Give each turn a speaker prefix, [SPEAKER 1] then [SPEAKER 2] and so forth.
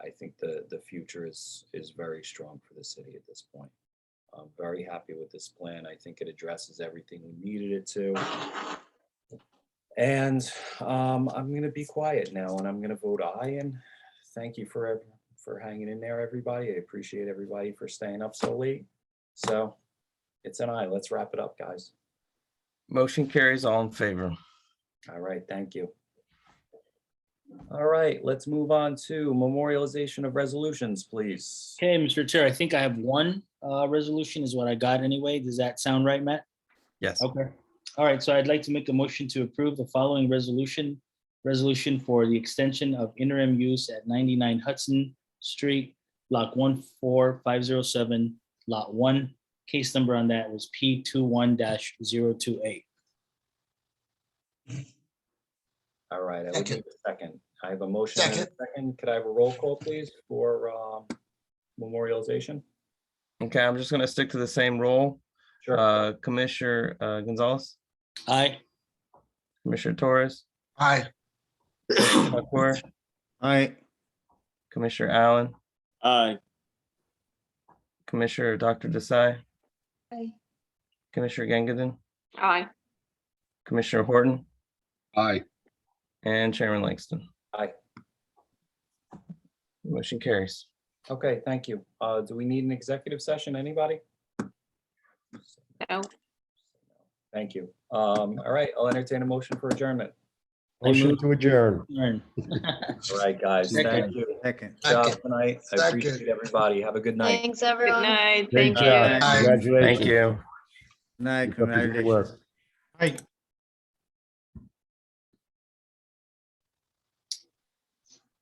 [SPEAKER 1] I think the, the future is, is very strong for the city at this point. I'm very happy with this plan. I think it addresses everything we needed it to. And um, I'm gonna be quiet now and I'm gonna vote aye and thank you for, ev- for hanging in there, everybody. I appreciate everybody for staying up so late. So it's an aye. Let's wrap it up, guys.
[SPEAKER 2] Motion carries all in favor.
[SPEAKER 1] All right, thank you. All right, let's move on to memorialization of resolutions, please.
[SPEAKER 3] Okay, Mr. Chair, I think I have one uh, resolution is what I got anyway. Does that sound right, Matt?
[SPEAKER 2] Yes,
[SPEAKER 3] Okay. All right, so I'd like to make a motion to approve the following resolution. Resolution for the extension of interim use at 99 Hudson Street, Block 14507, Lot 1. Case number on that was P21-028.
[SPEAKER 1] All right, I would
[SPEAKER 4] Second.
[SPEAKER 1] need a second. I have a motion. and a
[SPEAKER 4] Second.
[SPEAKER 1] Second, could I have a roll call, please, for um, memorialization?
[SPEAKER 2] okay, I'm just gonna stick to the same role.
[SPEAKER 1] Sure.
[SPEAKER 2] Uh, Commissioner uh, Gonzalez,
[SPEAKER 3] Aye.
[SPEAKER 2] Commissioner Torres,
[SPEAKER 4] Aye.
[SPEAKER 2] Pacor,
[SPEAKER 5] Aye.
[SPEAKER 2] Commissioner Allen,
[SPEAKER 6] Aye.
[SPEAKER 2] Commissioner Dr. Desai,
[SPEAKER 7] Aye.
[SPEAKER 2] Commissioner Gangadin,
[SPEAKER 7] Aye.
[SPEAKER 2] Commissioner Horton,
[SPEAKER 4] Aye.
[SPEAKER 2] and Chairman Langston.
[SPEAKER 1] Aye.
[SPEAKER 2] Motion carries.
[SPEAKER 1] Okay, thank you. Uh, Do we need an executive session, anybody?
[SPEAKER 7] No.
[SPEAKER 1] Thank you. Um, All right, I'll entertain a motion for adjournment.
[SPEAKER 3] I
[SPEAKER 5] Motion
[SPEAKER 3] move-
[SPEAKER 5] to adjourn.
[SPEAKER 3] Adjourn.
[SPEAKER 1] All right, guys, thank
[SPEAKER 2] Second.
[SPEAKER 1] you.
[SPEAKER 5] Second.
[SPEAKER 1] Good job
[SPEAKER 4] Second.
[SPEAKER 1] Tonight, I appreciate
[SPEAKER 4] Second.
[SPEAKER 1] everybody. Have a good night.
[SPEAKER 8] Thanks, everyone.
[SPEAKER 7] night.
[SPEAKER 5] Great job.
[SPEAKER 4] Aye.
[SPEAKER 5] Congratulations.
[SPEAKER 2] Thank you.
[SPEAKER 5] Night,
[SPEAKER 6] Keep up the good work.
[SPEAKER 5] congratulations.